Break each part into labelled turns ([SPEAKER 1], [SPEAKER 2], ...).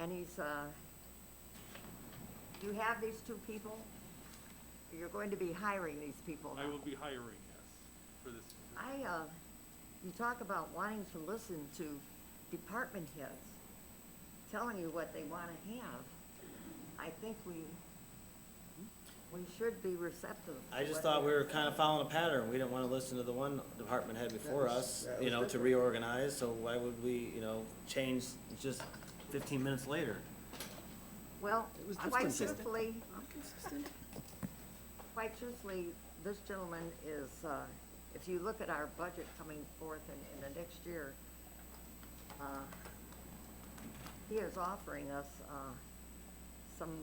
[SPEAKER 1] and he's, uh, you have these two people? You're going to be hiring these people
[SPEAKER 2] I
[SPEAKER 1] now.
[SPEAKER 2] will be hiring, yes, for this.
[SPEAKER 1] I, uh, you talk about wanting to listen to department heads telling you what they want to have. I think we, we should be receptive. to
[SPEAKER 3] I just
[SPEAKER 1] what
[SPEAKER 3] thought we
[SPEAKER 1] they're
[SPEAKER 3] were kind of following a pattern. We didn't want to listen to the one department head before us, you know, to reorganize, so why would we, you know, change just fifteen minutes later?
[SPEAKER 1] Well,
[SPEAKER 4] It was
[SPEAKER 1] quite
[SPEAKER 4] consistent.
[SPEAKER 1] truthfully,
[SPEAKER 4] I'm consistent.
[SPEAKER 1] quite truthfully, this gentleman is, uh, if you look at our budget coming forth in, in the next year, uh, he is offering us, uh, some,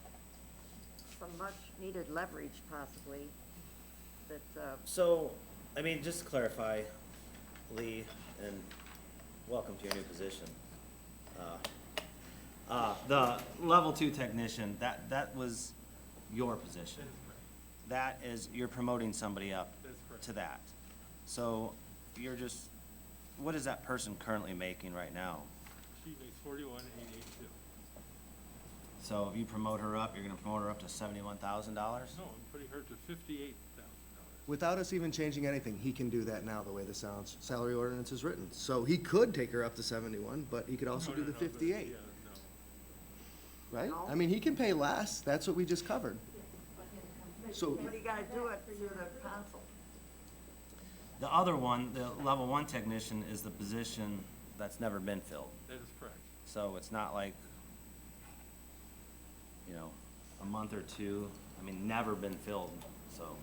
[SPEAKER 1] some much-needed leverage possibly, that, uh,
[SPEAKER 3] So, I mean, just to clarify, Lee, and welcome to your new position. Uh, Uh, the level two technician, that, that was your
[SPEAKER 2] That
[SPEAKER 3] position.
[SPEAKER 2] is correct.
[SPEAKER 3] That is, you're promoting somebody up
[SPEAKER 2] That's correct.
[SPEAKER 3] to that. So you're just, what is that person currently making right now?
[SPEAKER 2] She makes forty-one, eight, eight, two.
[SPEAKER 3] So if you promote her up, you're gonna promote her up to seventy-one thousand dollars?
[SPEAKER 2] No, I'm putting her to fifty-eight thousand dollars.
[SPEAKER 4] Without us even changing anything, he can do that now, the way the sounds, salary ordinance is written. So he could take her up to seventy-one, but he could also do the fifty-eight,
[SPEAKER 2] Yeah, no.
[SPEAKER 4] right?
[SPEAKER 1] No.
[SPEAKER 4] I mean, he can pay less, that's what we just covered. So,
[SPEAKER 1] but you gotta do it through the council.
[SPEAKER 3] The other one, the level one technician is the position that's never been filled.
[SPEAKER 2] That is correct.
[SPEAKER 3] So it's not like, you know, a month or two, I mean, never been filled, so.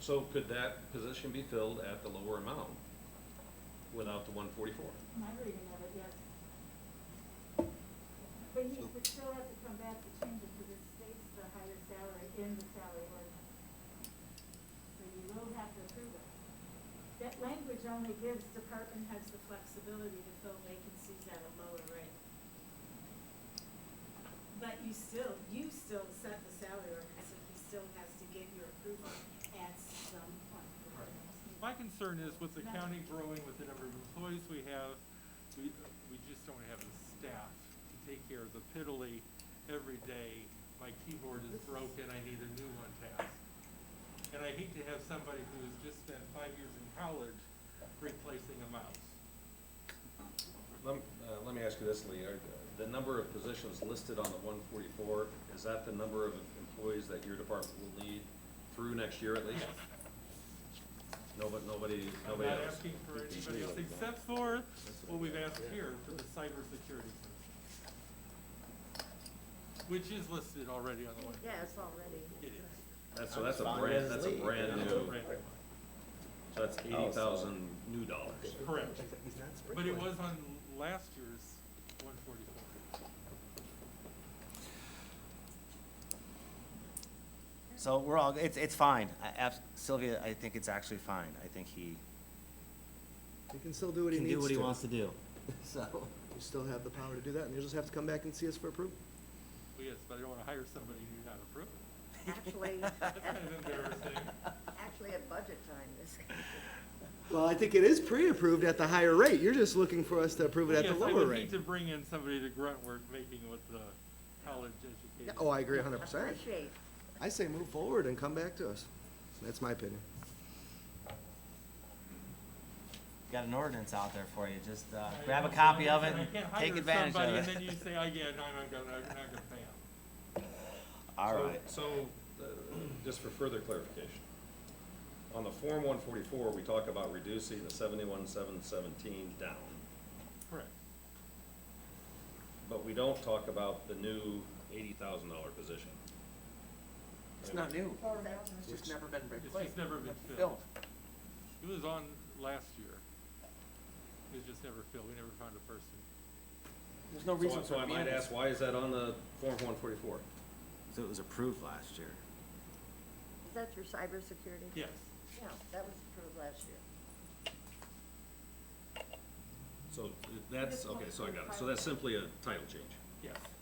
[SPEAKER 5] So could that position be filled at the lower amount without the one forty-four?
[SPEAKER 6] My reading of it, yes. But he would still have to come back to change it because it states the higher salary in the salary ordinance. So you will have to approve it. That language only gives department heads the flexibility to fill vacancies at a lower rate. But you still, you still set the salary ordinance, so he still has to give your approval at some point.
[SPEAKER 2] My concern is with the county growing, with the number of employees we have, we, we just don't have the staff to take care of the piddly every day. My keyboard is broken, I need a new one task. And I hate to have somebody who has just spent five years in college replacing a mouse.
[SPEAKER 5] Let, uh, let me ask you this, Lee, are, the number of positions listed on the one forty-four, is that the number of employees that your department will need through next year at least? No, but nobody,
[SPEAKER 2] I'm
[SPEAKER 5] nobody
[SPEAKER 2] not
[SPEAKER 5] else?
[SPEAKER 2] asking for anybody else except for what we've asked here for the cybersecurity. person, Which is listed already on the one.
[SPEAKER 1] Yeah, it's already.
[SPEAKER 2] It is.
[SPEAKER 5] That's, so that's a brand, that's a brand new,
[SPEAKER 2] Right.
[SPEAKER 5] so that's
[SPEAKER 3] Oh,
[SPEAKER 5] eighty thousand new dollars.
[SPEAKER 2] Correct. But it was on last year's one forty-four.
[SPEAKER 3] So we're all, it's, it's fine. I, abs- Sylvia, I think it's actually fine. I think he
[SPEAKER 4] he can still do what he
[SPEAKER 3] can
[SPEAKER 4] needs to.
[SPEAKER 3] do what he wants to do.
[SPEAKER 4] So, you still have the power to do that, and you'll just have to come back and see us for approval.
[SPEAKER 2] Well, yes, but I don't wanna hire somebody who's not approved.
[SPEAKER 1] Actually,
[SPEAKER 2] That's kind
[SPEAKER 1] at-
[SPEAKER 2] of embarrassing.
[SPEAKER 1] actually at budget time, this,
[SPEAKER 4] Well, I think it is pre-approved at the higher rate, you're just looking for us to approve it at the
[SPEAKER 2] Yes, I
[SPEAKER 4] lower
[SPEAKER 2] would need
[SPEAKER 4] rate.
[SPEAKER 2] to bring in somebody to grunt work making with the college
[SPEAKER 4] Yeah,
[SPEAKER 2] education.
[SPEAKER 4] Oh, I agree hundred percent.
[SPEAKER 1] appreciate.
[SPEAKER 4] I say move forward and come back to us. That's my opinion.
[SPEAKER 3] Got an ordinance out there for you. Just, uh,
[SPEAKER 2] I
[SPEAKER 3] grab a
[SPEAKER 2] also
[SPEAKER 3] copy of it
[SPEAKER 2] understand
[SPEAKER 3] and
[SPEAKER 2] I can't
[SPEAKER 3] take
[SPEAKER 2] hire
[SPEAKER 3] advantage
[SPEAKER 2] somebody
[SPEAKER 3] of
[SPEAKER 2] And then you
[SPEAKER 3] it.
[SPEAKER 2] say, I get, I'm not gonna, I'm not gonna pay 'em."
[SPEAKER 3] All
[SPEAKER 5] So-
[SPEAKER 3] right.
[SPEAKER 5] So, uh, just for further clarification, on the Form one forty-four, we talk about reducing the seventy-one, seven seventeen down,
[SPEAKER 2] Correct.
[SPEAKER 5] but we don't talk about the new eighty thousand dollar position.
[SPEAKER 7] It's not new. It's just never been
[SPEAKER 2] It's just never been filled.
[SPEAKER 7] filled.
[SPEAKER 2] It was on last year. It was just never filled. We never found a person.
[SPEAKER 7] There's no
[SPEAKER 5] So
[SPEAKER 7] reason
[SPEAKER 5] I-
[SPEAKER 7] for
[SPEAKER 5] So I
[SPEAKER 7] it
[SPEAKER 5] might
[SPEAKER 7] being.
[SPEAKER 5] ask, why is that on the Form one forty-four?
[SPEAKER 3] So it was approved last year.
[SPEAKER 1] Is that your cybersecurity?
[SPEAKER 2] Yes.
[SPEAKER 1] Yeah, that was approved last year.
[SPEAKER 5] So that's, okay, so I got it. So that's simply a title change.
[SPEAKER 2] Yes.